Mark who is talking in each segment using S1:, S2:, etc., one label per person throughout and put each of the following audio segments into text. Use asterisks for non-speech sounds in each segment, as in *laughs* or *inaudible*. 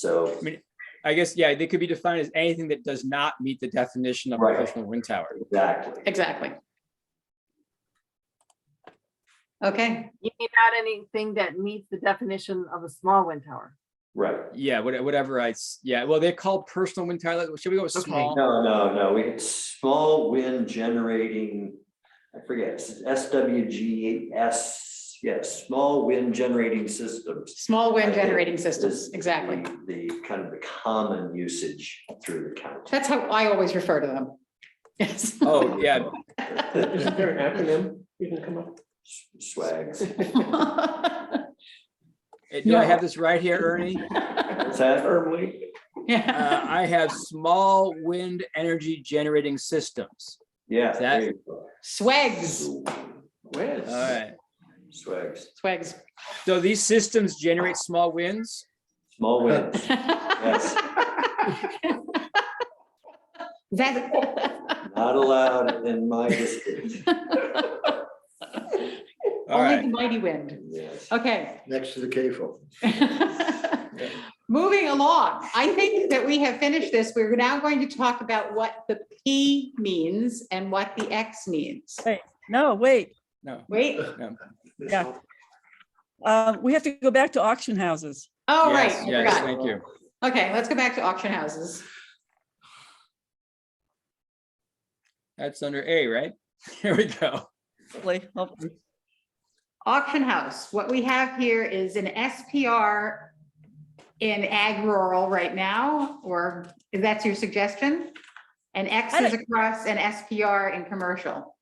S1: So,
S2: I guess, yeah, they could be defined as anything that does not meet the definition of a
S1: Right.
S2: personal wind tower.
S1: exactly.
S3: Exactly. Okay,
S4: You mean not anything that meets the definition of a small wind tower.
S1: Right.
S2: Yeah, what- whatever I, s- yeah, well, they're called personal wind tower, like, should we go with
S3: Okay.
S2: small?
S1: No, no, no, we had small wind generating, I forget, it's SWGS, yes, small wind generating systems.
S3: small wind
S1: I think
S3: generating
S1: is
S3: systems, exactly.
S1: the- The kind of the common usage through the
S3: *laughs*
S1: county.
S3: That's how I always refer to them. Yes. *laughs*
S2: Oh, yeah,
S5: Isn't there an acronym you can come up? *laughs*
S1: Swags.
S2: Eh, do I
S3: No.
S2: have this right here, Ernie?
S1: What's that?
S5: Firmly.
S2: Uh,
S3: Yeah,
S2: I have small wind energy generating systems.
S1: Yeah.
S2: That-
S1: there you go.
S3: swags,
S5: Where's?
S2: All right,
S1: Swags,
S3: swags.
S2: so these systems generate small winds?
S1: small winds, yes,
S3: That,
S1: not allowed in my
S2: *laughs*
S1: district,
S2: All
S3: only the
S2: right,
S3: mighty wind,
S1: yes.
S3: okay.
S5: Next to the CAFO.
S3: *laughs* Moving along, I think that we have finished this. We're now going to talk about what the P means and what the X means.
S6: No, wait,
S2: no,
S3: Wait,
S6: Yeah. uh, we have to go back to auction houses.
S3: oh, right,
S2: yes,
S3: I
S2: yes,
S3: forgot.
S2: thank you.
S3: Okay, let's go back to auction houses.
S2: That's under A, right? *laughs* Here we go.
S6: Hopefully, hopefully.
S3: Auction house, what we have here is an SPR in ag rural right now, or if that's your suggestion? And X
S6: I
S3: is across an SPR in commercial.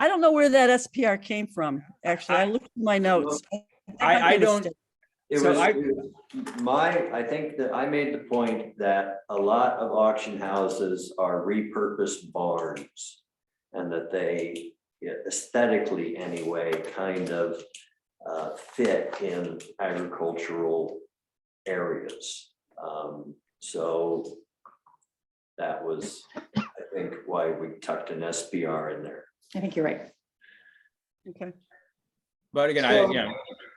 S6: I don't know where that SPR came from, actually. I looked at my notes.
S2: I- I
S6: made a
S2: don't-
S6: mistake.
S1: It
S2: So
S1: was,
S2: I-
S1: it was- my, I think that I made the point that a lot of auction houses are repurposed barns. And that they yeah, aesthetically anyway, kind of uh, fit in agricultural areas. Um, So that was, I think, why we tucked an SBR in there.
S3: I think you're right.
S6: Okay.
S2: But again, I, you know,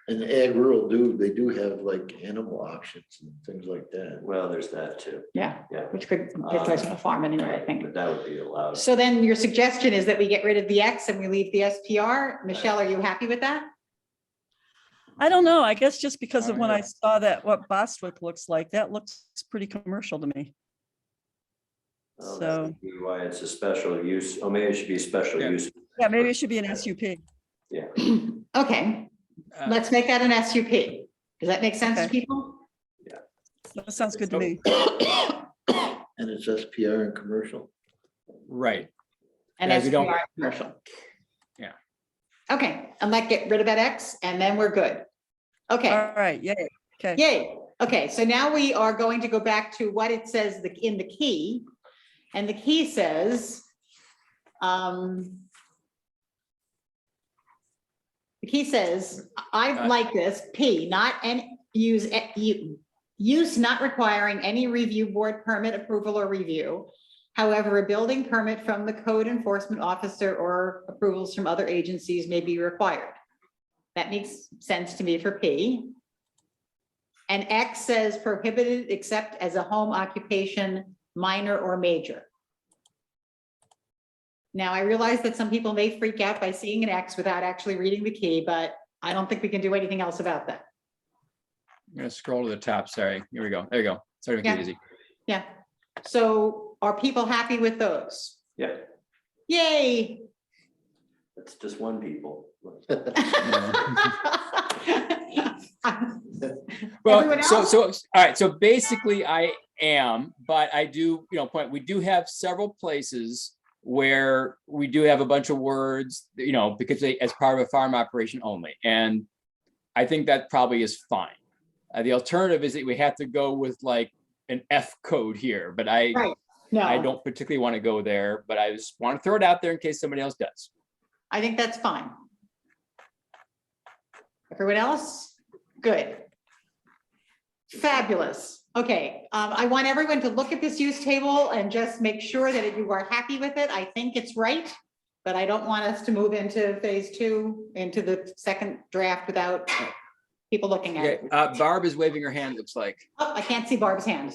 S7: And ag rural do, they do have like animal options and things like that.
S1: Uh, Well, there's that too.
S3: Yeah,
S1: Yeah.
S3: which could
S2: Uh,
S3: get us a farm anyway, I think.
S1: But that would be allowed.
S3: So then your suggestion is that we get rid of the X and we leave the SPR? Michelle, are you happy with that?
S6: I don't know. I guess just because of when I
S2: Alright.
S6: saw that, what Bostwick looks like, that looks pretty commercial to me.
S1: Well, that
S6: So-
S1: would be Oh, Why it's a special use, oh, maybe it should be special
S2: Yeah.
S1: use.
S6: Yeah, maybe it should be an SUP.
S3: Okay,
S2: uh,
S3: let's make that an SUP. Does that make sense to
S6: Okay.
S3: people?
S6: That sounds good to me.
S7: And it's SPR and commercial.
S2: right,
S3: And
S2: Yeah, we don't-
S3: SPR commercial.
S2: Yeah.
S3: Okay, and let get rid of that X and then we're good. Okay,
S6: All right, yay. Okay.
S3: yay. Okay, so now we are going to go back to what it says the- in the key. And the key says, um, the key says, I
S2: Uh,
S3: like this, P, not and use, a- u- use not requiring any review board permit approval or review. However, a building permit from the code enforcement officer or approvals from other agencies may be required. That makes sense to me for P. And X says prohibited except as a home occupation, minor or major. Now, I realize that some people may freak out by seeing an X without actually reading the key, but I don't think we can do anything else about that.
S2: I'm gonna scroll to the top, sorry, here we go, there you go, sorry to make it
S3: Yeah.
S2: easy.
S3: Yeah. So are people happy with those?
S1: Yeah,
S3: Yay. *laughs*
S1: that's just
S7: *laughs*
S1: one people.
S2: Well,
S3: Everyone
S2: so,
S3: else?
S2: so, all right, so basically I am, but I do, you know, point, we do have several places where we do have a bunch of words, you know, because they, as part of a farm operation only, and I think that probably is fine. Uh, the alternative is that we have to go with like an F code here, but I,
S3: Right. No,
S2: I don't particularly want to go there, but I just want to throw it out there in case somebody else does.
S3: I think that's fine. Everyone else? Good. Fabulous. Okay, um, I want everyone to look at this use table and just make sure that you are happy with it. I think it's right. But I don't want us to move into phase two, into the second draft without people looking at
S2: Okay,
S3: it.
S2: uh, Barb is waving her hand, looks like.
S3: Oh, I can't see Barb's hand.